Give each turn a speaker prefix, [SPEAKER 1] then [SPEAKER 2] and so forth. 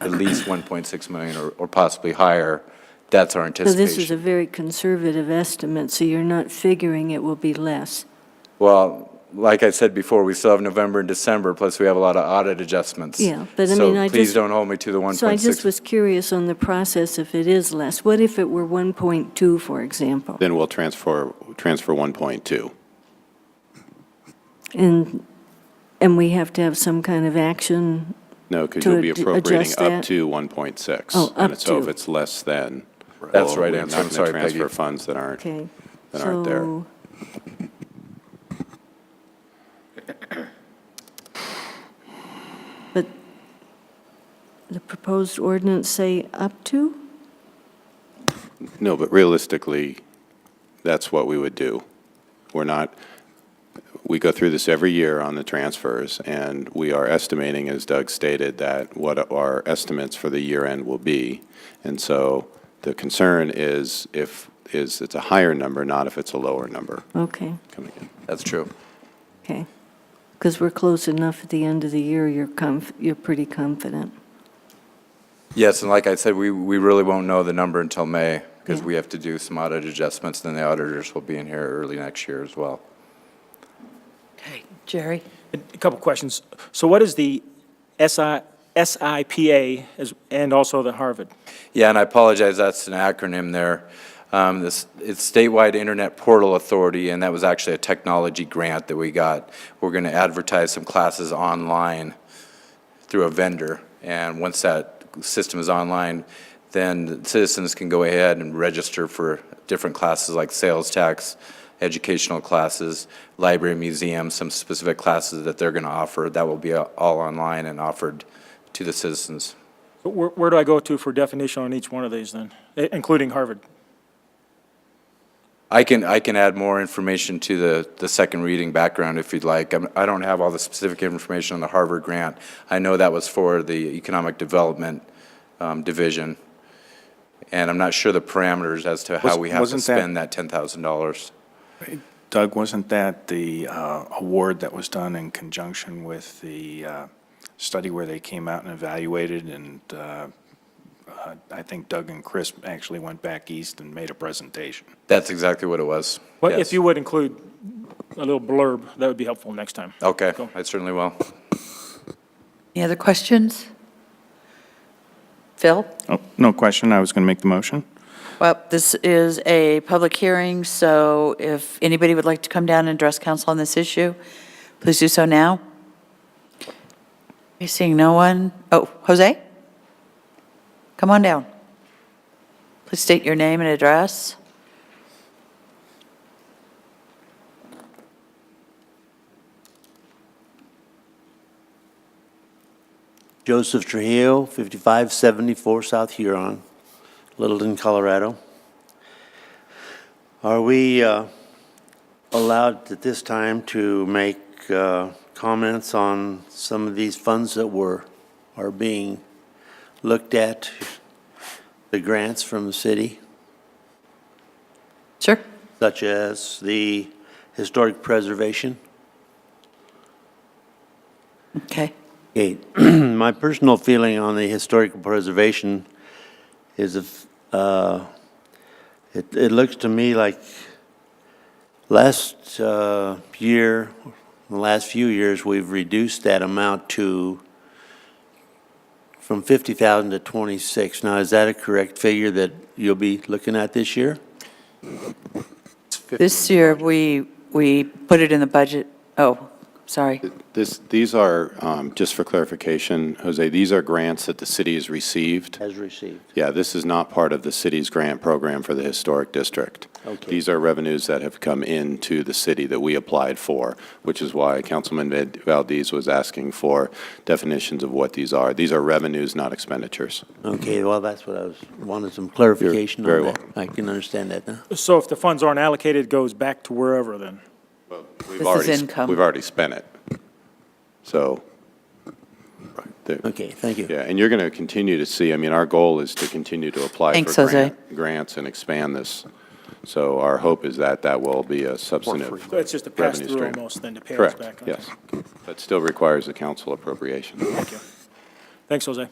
[SPEAKER 1] at least 1.6 million or- or possibly higher. That's our
[SPEAKER 2] So this is a
[SPEAKER 1] anticipation.
[SPEAKER 2] very conservative estimate, so you're not figuring it will be less.
[SPEAKER 1] Well, like I said before, we still have November and December, plus we have a lot of audit adjustments.
[SPEAKER 2] Yeah, but I mean, I
[SPEAKER 1] So please
[SPEAKER 2] just-
[SPEAKER 1] don't hold me to the 1.6.
[SPEAKER 2] So I just was curious on the process if it is less. What if it were 1.2, for example?
[SPEAKER 3] Then we'll transfer, transfer 1.2.
[SPEAKER 2] And, and we have to have some kind of action?
[SPEAKER 3] No, because
[SPEAKER 2] To
[SPEAKER 3] you'll be
[SPEAKER 2] ad-
[SPEAKER 3] appropriating
[SPEAKER 2] adjust
[SPEAKER 3] up
[SPEAKER 2] that?
[SPEAKER 3] to 1.6.
[SPEAKER 2] Oh,
[SPEAKER 3] And
[SPEAKER 2] up
[SPEAKER 3] so if
[SPEAKER 2] to.
[SPEAKER 3] it's less than.
[SPEAKER 1] That's
[SPEAKER 3] well,
[SPEAKER 1] right
[SPEAKER 3] we're
[SPEAKER 1] answer.
[SPEAKER 3] not
[SPEAKER 1] I'm
[SPEAKER 3] gonna
[SPEAKER 1] sorry,
[SPEAKER 3] Transfer
[SPEAKER 1] Peggy.
[SPEAKER 3] funds that aren't,
[SPEAKER 2] Okay.
[SPEAKER 3] that aren't there.
[SPEAKER 2] So But the proposed ordinance say up to?
[SPEAKER 3] No, but realistically, that's what we would do. We're not, we go through this every year on the transfers, and we are estimating, as Doug stated, that what our estimates for the year end will be. And so the concern is if, is it's a higher number, not if it's a lower number
[SPEAKER 2] Okay,
[SPEAKER 3] coming in.
[SPEAKER 1] That's true.
[SPEAKER 2] okay. Because we're close enough at the end of the year, you're conf, you're pretty confident.
[SPEAKER 1] Yes, and like I said, we, we really won't know the number until May, because
[SPEAKER 2] Yeah.
[SPEAKER 1] we have to do some audit adjustments, then the auditors will be in here early next year as well.
[SPEAKER 4] Jerry?
[SPEAKER 5] A couple questions. So what is the SI, SIPA as- and also the Harvard?
[SPEAKER 1] Yeah, and I apologize, that's an acronym there. Um, this, it's Statewide Internet Portal Authority, and that was actually a technology grant that we got. We're going to advertise some classes online through a vendor, and once that system is online, then citizens can go ahead and register for different classes like sales tax, educational classes, library, museum, some specific classes that they're going to offer. That will be uh, all online and offered to the citizens.
[SPEAKER 5] Where, where do I go to for definition on each one of these then, i- including Harvard?
[SPEAKER 1] I can, I can add more information to the, the second reading background if you'd like. I'm- I don't have all the specific information on the Harvard grant. I know that was for the Economic Development um, Division, and I'm not sure the parameters as to how
[SPEAKER 6] Was-
[SPEAKER 1] we have to
[SPEAKER 6] wasn't that-
[SPEAKER 1] spend that $10,000.
[SPEAKER 6] Doug, wasn't that the uh, award that was done in conjunction with the uh, study where they came out and evaluated? And uh, uh, I think Doug and Chris actually went back east and made a presentation.
[SPEAKER 1] That's exactly what it was.
[SPEAKER 5] Well, if
[SPEAKER 1] Yes.
[SPEAKER 5] you would include a little blurb, that would be helpful next time.
[SPEAKER 1] Okay,
[SPEAKER 5] Cool.
[SPEAKER 1] I certainly will.
[SPEAKER 4] Any other questions? Phil?
[SPEAKER 6] Oh, no question, I was going to make the motion.
[SPEAKER 4] Well, this is a public hearing, so if anybody would like to come down and address council on this issue, please do so now. You're seeing no one. Oh, Jose? Come on down. Please state your name and address.
[SPEAKER 7] Joseph Trujillo, 5574 South Huron, Littleton, Colorado. Are we uh, allowed at this time to make uh, comments on some of these funds that were, are being looked at, the grants from the city,
[SPEAKER 4] Sure.
[SPEAKER 7] such as the historic preservation?
[SPEAKER 4] Okay.
[SPEAKER 7] Okay, my personal feeling on the historical preservation is if, uh, it, it looks to me like last, uh, year, the last few years, we've reduced that amount to from fifty thousand to twenty-six. Now, is that a correct figure that you'll be looking at this year?
[SPEAKER 4] This year, we, we put it in the budget. Oh, sorry.
[SPEAKER 3] This, these are, um, just for clarification, Jose, these are grants that the city has received.
[SPEAKER 7] As received.
[SPEAKER 3] Yeah, this is not part of the city's grant program for the historic district.
[SPEAKER 7] Okay.
[SPEAKER 3] These are revenues that have come into the city that we applied for, which is why Councilman Val- Valdez was asking for definitions of what these are. These are revenues, not expenditures.
[SPEAKER 7] Okay, well, that's what I was, wanted some clarification on
[SPEAKER 3] very
[SPEAKER 7] that.
[SPEAKER 3] welcome.
[SPEAKER 7] I can understand that now.
[SPEAKER 5] So if the funds aren't allocated, it goes back to wherever then?
[SPEAKER 3] We've
[SPEAKER 4] is
[SPEAKER 3] already s-
[SPEAKER 4] income.
[SPEAKER 3] We've already spent it. So, the-
[SPEAKER 7] Okay, thank you.
[SPEAKER 3] Yeah, and you're going to continue to see, I mean, our goal is to continue to apply
[SPEAKER 4] Thanks,
[SPEAKER 3] for
[SPEAKER 4] Jose.
[SPEAKER 3] grant- grants and expand this. So our hope is that that will be a substantive
[SPEAKER 5] So it's just a
[SPEAKER 3] revenue
[SPEAKER 5] pass-through
[SPEAKER 3] stream.
[SPEAKER 5] almost then to pay us
[SPEAKER 3] Correct,
[SPEAKER 5] back? Okay.
[SPEAKER 3] yes. But still requires a council appropriation.
[SPEAKER 5] Thanks, Jose.